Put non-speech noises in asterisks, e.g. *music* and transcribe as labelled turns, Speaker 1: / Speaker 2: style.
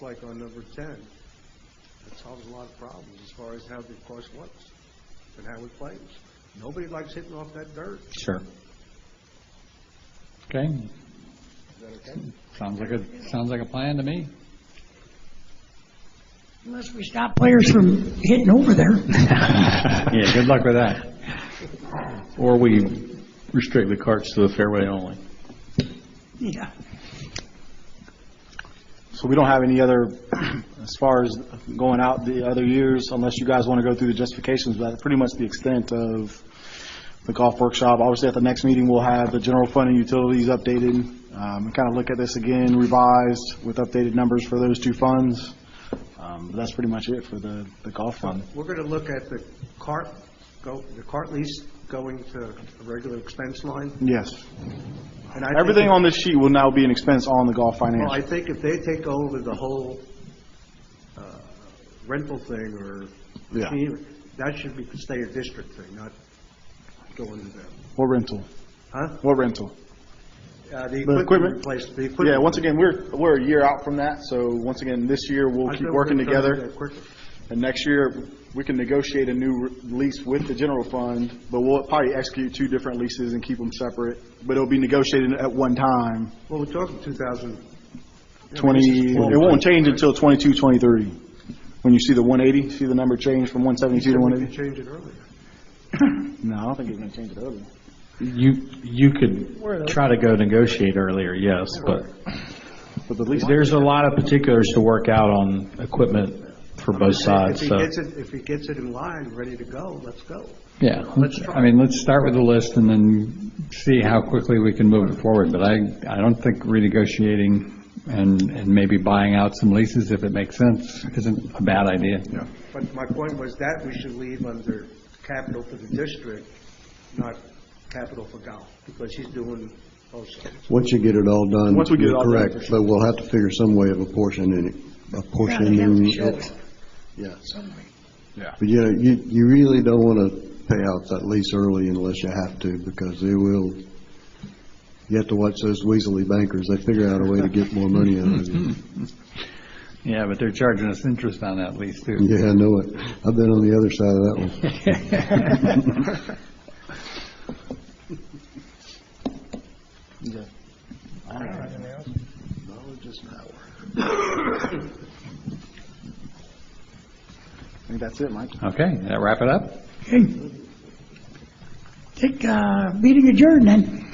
Speaker 1: like on number 10, that solves a lot of problems as far as how the course looks and how it plays. Nobody likes hitting off that dirt.
Speaker 2: Sure. Okay,
Speaker 1: Is that okay?
Speaker 2: sounds like a, sounds like a plan
Speaker 3: *laughs*
Speaker 2: to me.
Speaker 4: Unless we stop players from hitting over there. *laughs*
Speaker 2: Yeah, good luck with that.
Speaker 3: Or we restrict the carts to the fairway only.
Speaker 4: Yeah.
Speaker 5: So we don't have any other, *clears throat* as far as going out the other years, unless you guys want to go through the justifications, but that's pretty much the extent of the golf workshop. Obviously, at the next meeting, we'll have the general fund and utilities updated, um, and kind of look at this again revised with updated numbers for those two funds. Um, but That's pretty much it for the, the golf fund.
Speaker 1: We're going to look at the cart, go, the cart lease going to a regular expense line.
Speaker 5: Yes.
Speaker 1: and I think-
Speaker 5: Everything on this sheet will now be an expense on the golf
Speaker 1: Well, I
Speaker 5: financial.
Speaker 1: think if they take over the whole uh, rental thing or,
Speaker 5: Yeah.
Speaker 1: that should be, stay a district thing, not go into them.
Speaker 5: What rental?
Speaker 1: Huh?
Speaker 5: What rental?
Speaker 1: Uh, The
Speaker 5: The
Speaker 1: equipment
Speaker 5: equipment?
Speaker 1: replacement, the equipment.
Speaker 5: Yeah, once again, we're, we're a year out from that, so once again, this year, we'll
Speaker 1: I
Speaker 5: keep
Speaker 1: know
Speaker 5: working
Speaker 1: we're gonna do
Speaker 5: together.
Speaker 1: that quicker.
Speaker 5: And next year, we can negotiate a new re- lease with the general fund, but we'll probably execute two different leases and keep them separate, but it'll be negotiated at one time,
Speaker 1: Well, we're talking 2000.
Speaker 5: 20, it won't change until 22, 23, when you see the 180, see the number change from 172 to
Speaker 1: We could
Speaker 5: 180?
Speaker 1: change it earlier.
Speaker 5: No, I don't think it's going to change it early.
Speaker 3: You, you could try to go negotiate earlier, yes, but
Speaker 5: But the lease,
Speaker 3: there's a lot of particulars to work out on equipment for both sides,
Speaker 1: If he
Speaker 3: so,
Speaker 1: gets it, if he gets it in line, ready to go, let's go.
Speaker 2: Yeah, let's, I mean, let's start with the list and then see how quickly we can move it forward. But I, I don't think renegotiating and, and maybe buying out some leases if it makes sense isn't a bad idea. Yeah.
Speaker 1: But my point was that we should leave under capital for the district, not capital for golf, because he's doing also.
Speaker 6: Once you get it all done,
Speaker 5: Once we get it
Speaker 6: you're
Speaker 5: all done, for
Speaker 6: correct, but we'll have to figure some way of apportioning it,
Speaker 4: Yeah, they have to
Speaker 6: apportioning
Speaker 4: show it.
Speaker 6: it. Yeah. But you know, you, you really don't want to pay out that lease early unless you have to, because they will, you have to watch those weaselly bankers, they figure out a way to get more money out
Speaker 5: *laughs*
Speaker 6: of you.
Speaker 2: Yeah, but they're charging us interest on that lease too.
Speaker 6: Yeah, I know it, I've been on the other side of that one.
Speaker 5: I think that's it, Mike.
Speaker 2: Okay, that wrap it up?
Speaker 4: Okay. Take, uh, meeting adjourned then.